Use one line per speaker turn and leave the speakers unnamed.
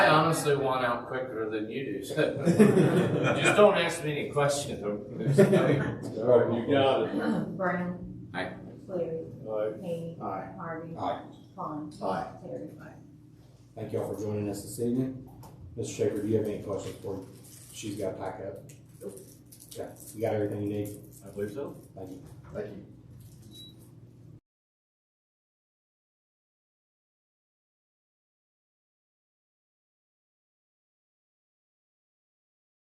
honestly want out quicker than you do. so- Just don't ask me any questions. or-
All right, you got it.
Brown.
Aye.
Cleary.
All right.
Hany.
Aye.
Harvey.
Aye.
Vaughn.
Aye.
Terry.
Thank y'all for joining us this evening. Mr. Shaker, do you have any questions for, me? she's got a pack up? Okay, you got everything you need?
I believe so.
Thank you.
Thank you.